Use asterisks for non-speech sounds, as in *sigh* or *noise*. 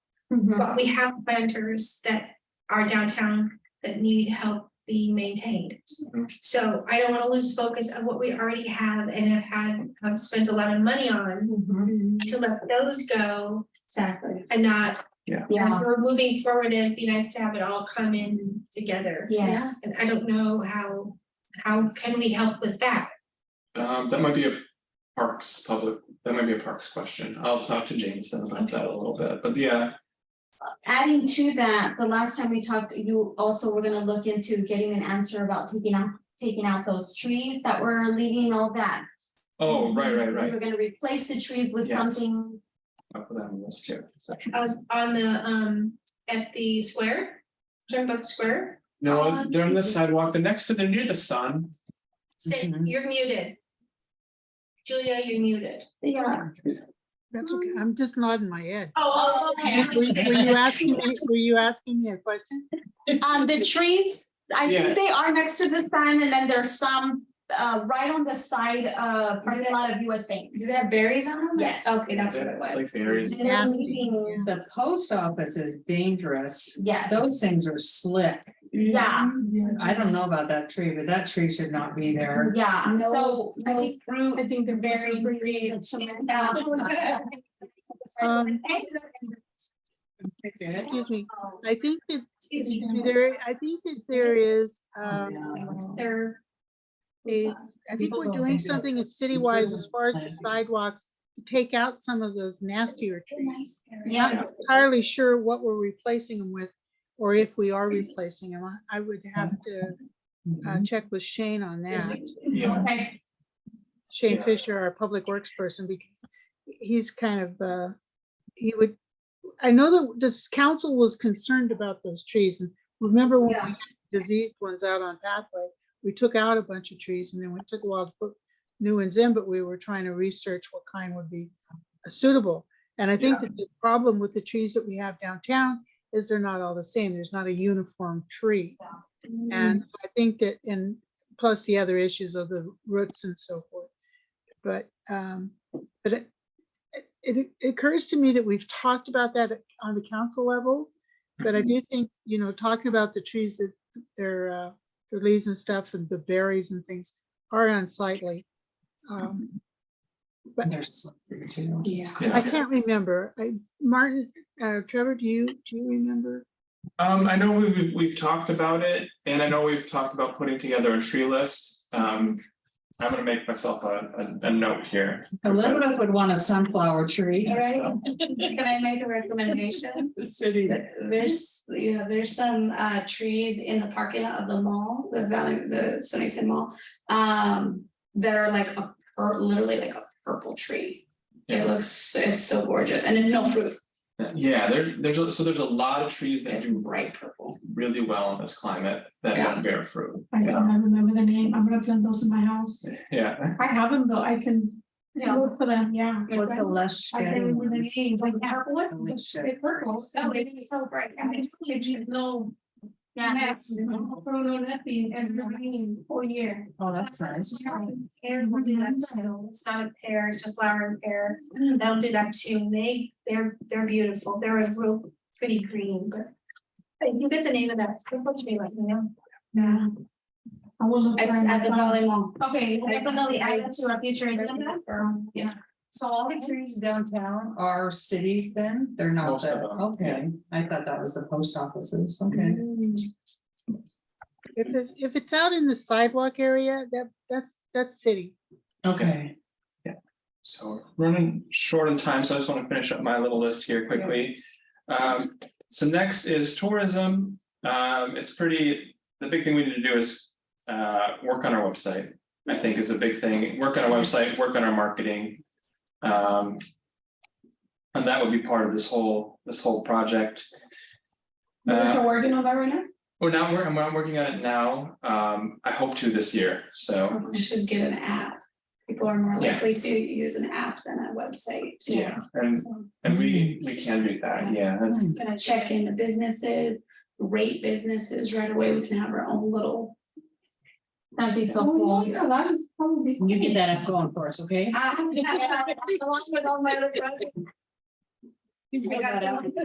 Mm-hmm. Mhm. But we have planters that are downtown that need help being maintained. Mm-hmm. So I don't wanna lose focus of what we already have and have had, have spent a lot of money on to let those go Exactly. and not, as Yeah, we're moving forward, it'd be nice to have it all come in together. yes. And I don't know how, how can we help with that? Um, that might be a parks public, that might be a parks question. I'll talk to Jameson about that a little bit, but yeah, Adding to that, the last time we talked, you also were gonna look into getting an answer about taking out, taking out those trees that were leaving all that. oh, right, right, We right. were gonna replace the trees with Yes. something, I'll put that on the list too. I was on the, um, at the square, talking about the square, No, they're on the sidewalk, they're next to, they're near the sun. say, Mm-hmm. you're muted. Julia, you're muted. yeah, That's okay. I'm just nodding my head. Oh, Were were you asking, me- were you asking me a question? um, the trees, I Yeah. think they are next to the sign, and then there's some, uh, right on the side, uh, parking lot of US Bank. Do they have berries on them? Yes. Okay, that's what it was. Like berries. And they're Nasty, leaving- The post office is dangerous. Yes, Those things are slick. yeah, I don't know about that tree, but that tree should not be there. yeah, No, so I think fruit. I think they're very free. *laughs* Um, Excuse me. I think that there, I think that there is, um, They're, a- I think we're doing something at city-wise as far as the sidewalks. to Take out some of those nastier trees. Yeah. Not entirely sure what we're replacing them with, or if we are replacing them. I- I would have to uh, check with Shane on that. Yeah, Okay, Shane Yeah. Fisher, our public works person, because he's kind of, uh, he would, I know that this council was concerned about those trees and remember when we Yeah. had diseased ones out on pathway, we took out a bunch of trees and then we took a while to put new ones in, but we were trying to research what kind would be suitable. And I think that the problem with the trees that we have downtown is they're not all the same. There's not a uniform tree. Mm-hmm. And so I think that, and plus the other issues of the roots and so forth. But, um, but it, it it occurs to me that we've talked about that on the council level. But I do think, you know, talking about the trees that their, uh, their leaves and stuff and the berries and things are unsightly. Um, Yeah. I yeah. can't remember. I, Martin, uh, Trevor, do you, do you remember? Um, I know we've, we've talked about it and I know we've talked about putting together a tree list. Um, I'm gonna make myself a, a, a note here. Elizabeth would want a sunflower tree. *laughs* All right, can I make a recommendation? The city. There's, you know, there's some uh trees in the parking lot of the mall, the Valley, the Sunnyside Mall. Um, that are like a, pur- literally like a purple tree. It looks, it's so gorgeous and it's no fruit, Yeah, there, there's, a- so there's a lot of trees that it's do bright purple. really well in this climate that Yeah. don't bear fruit. I don't remember the name. I'm gonna plant those in my house. Yeah, I have them though. I can Yeah. look for them, yeah. What's the less I can shady remember the one? names, like apple, The least the shady. purples. Oh, it's so bright. I mean, it's just no yeah, mess, you know, throw no nothing and the rain all year. Oh, that's nice. and we'll do that too. It's not a pear, it's a flowering pear. They'll do that too. And They, they're, they're beautiful. They're a real pretty green, but. But you get the name of that. Don't touch me like, you know. Yeah. I will look. It's for at the them. Valley Mall. okay, we'll definitely add it to our future agenda. Yeah. So all the trees downtown are cities then? They're not Most of the, them, okay, I thought that was the post offices, okay. Mm. If, it- if it's out in the sidewalk area, that, that's, that's city. Okay. so we're running short on time, so I just want to finish up my little list here quickly. Um, so next is tourism. Um, it's pretty, the big thing we need to do is uh, work on our website. I think is a big thing, work on our website, work on our marketing. Um. And that would be part of this whole, this whole project. You guys Uh, are working on that right now? Well, Oh, now I'm, wor- I'm- I'm working on it now. Um, I hope to this year, so, We should get an app. People are more Yeah. likely to use an app than a website. yeah, and, So- and we, we can do that, yeah, that's, Just gonna check in the businesses, rate businesses right away, we can have our own little. That'd be so Oh, cool. yeah, that is probably. You get that up going for us, okay? I Along with all my other projects. You got got some- it.